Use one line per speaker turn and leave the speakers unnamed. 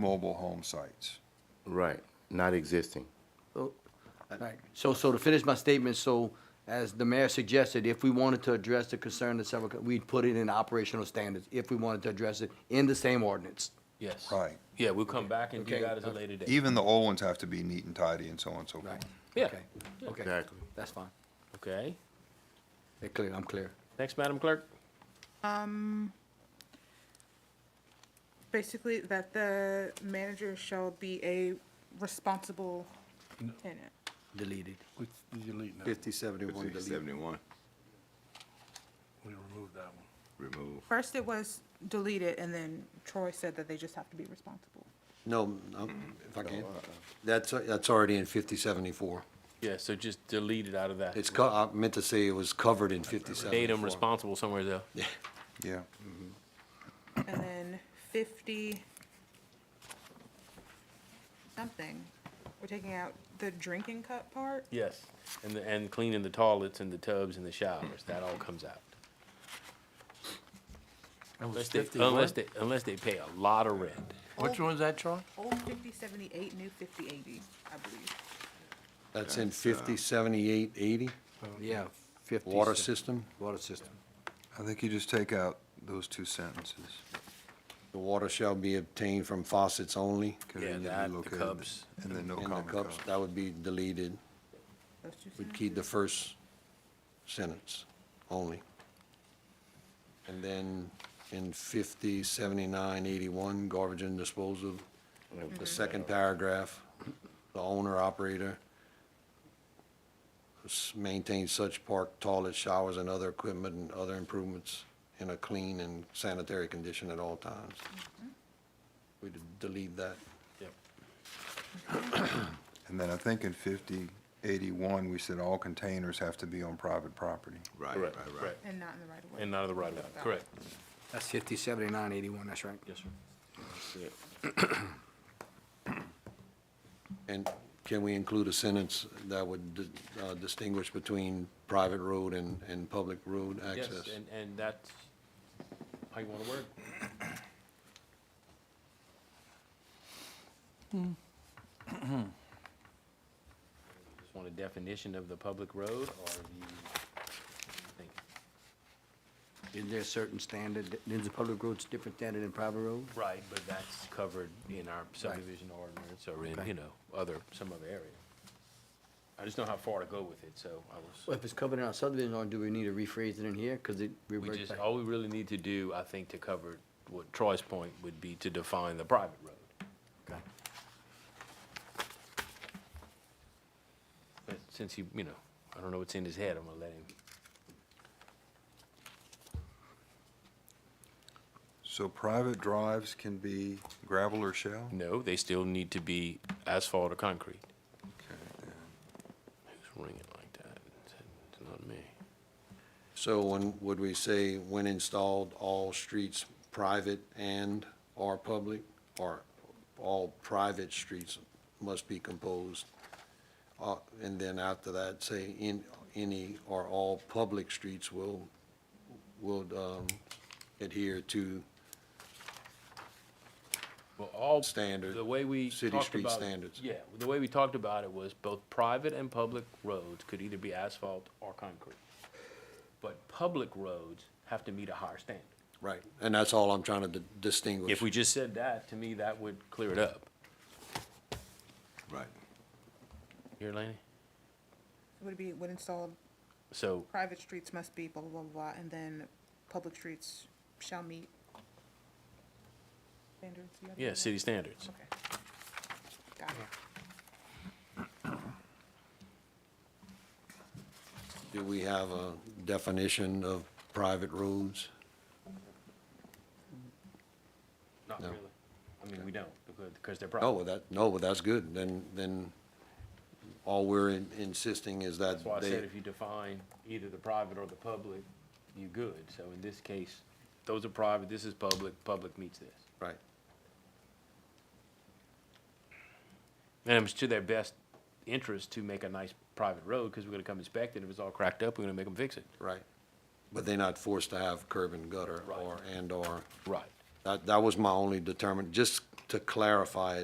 mobile home sites.
Right, not existing.
So- Oh, Right. So, so to finish my statement, so as the mayor suggested, if we wanted to address the concern that several, we'd put it in operational standards, if we wanted to address it in the same ordinance.
Yes.
Right.
Yeah, we'll come back and do
Okay.
that at a later date.
Even the old ones have to be neat and tidy and so on and so forth.
Right.
Yeah.
Okay. Okay,
Exactly.
that's fine.
Okay.
They're clear, I'm clear.
Next, Madam Clerk.
Basically, that the manager shall be a responsible tenant.
Deleted.
We delete that.
Fifty seventy-one
Fifty
delete.
seventy-one,
We remove that one.
remove.
First, it was deleted, and then Troy said that they just have to be responsible.
No, no, if I can. That's, that's already in fifty seventy-four.
Yeah, so just delete it out of that.
It's, co- I meant to say it was covered in fifty
Datum
seventy-four.
responsible somewhere there.
Yeah.
And then fifty something, we're taking out the drinking cup part?
Yes. And, the- and cleaning the toilets and the tubs and the showers, that all comes out. Unless they, unless they, unless they pay a lot of rent.
Which one's that, Troy?
Old fifty seventy-eight, new fifty eighty, I believe.
That's in fifty seventy-eight eighty,
Yeah, fifty.
water system.
Water system.
I think you just take out those two sentences.
The water shall be obtained from faucets only.
'cause
Yeah,
then they'd be
that, the
located
cups.
And then no
In the
common
cups,
cups.
that would be deleted.
Those two
We'd keep the first sentence only. And then in fifty seventy-nine eighty-one, garbage and disposal, the second paragraph, the owner operator s- maintains such park toilets, showers, and other equipment and other improvements in a clean and sanitary condition at all times. We'd delete that.
And then I think in fifty eighty-one, we said all containers have to be on private property.
Right, right,
Correct,
right.
sentences, And not in the right of way.
And out of the right of way. Correct.
That's fifty seventy-nine eighty-one, that's right.
Yes, sir.
And can we include a sentence that would di- uh, distinguish between private road and, and public road
Yes,
access?
and, and that's how you want to work. Hmm. Just want a definition of the public road or the, think,
Is there a certain standard, is the public roads different standard than private road?
right, but that's covered in our subdivision ordinance or in, you know, other, some other area. I just know how far to go with it, so I was,
Well, if it's covered in our subdivision, or do we need to rephrase it in here, cause it
we
reverts
just,
back?
all we really need to do, I think, to cover what Troy's point would be to define the private road.
Okay.
But since he, you know, I don't know what's in his head, I'm gonna let him.
So private drives can be gravel or shell?
No, they still need to be asphalt or concrete. Who's ringing like that? It's- It's not me.
So when, would we say, when installed, all streets private and or public? Or all private streets must be composed? Uh, And then after that, say, in, any or all public streets will, will um, adhere to
Well, all.
Standard,
The way we
city
talked
street
about-
standards.
Yeah, the way we talked about it was both private and public roads could either be asphalt or concrete. But public roads have to meet a higher standard.
Right, and that's all I'm trying to di- distinguish.
If we just said that, to me, that would clear it up.
Right.
Here, Laney?
Would it be, would install
So,
private streets must be blah, blah, blah, and then public streets shall meet standards. you have
yeah,
that?
city standards.
Okay. Got it.
Do we have a definition of private roads?
Not
No.
really. I mean, we don't, because- because they're
No,
private.
well, that, no, well, that's good, then, then all we're in- insisting is that
That's why I said
they,
if you define either the private or the public, you're good. So in this case, those are private, this is public, public meets this.
right,
And it's to their best interest to make a nice private road, because we're gonna come inspect it. If it's all cracked up, we're gonna make them fix it.
right. But they're not forced to have curb and gutter
Right.
or, and or,
Right.
that, that was my only determinant, just to clarify it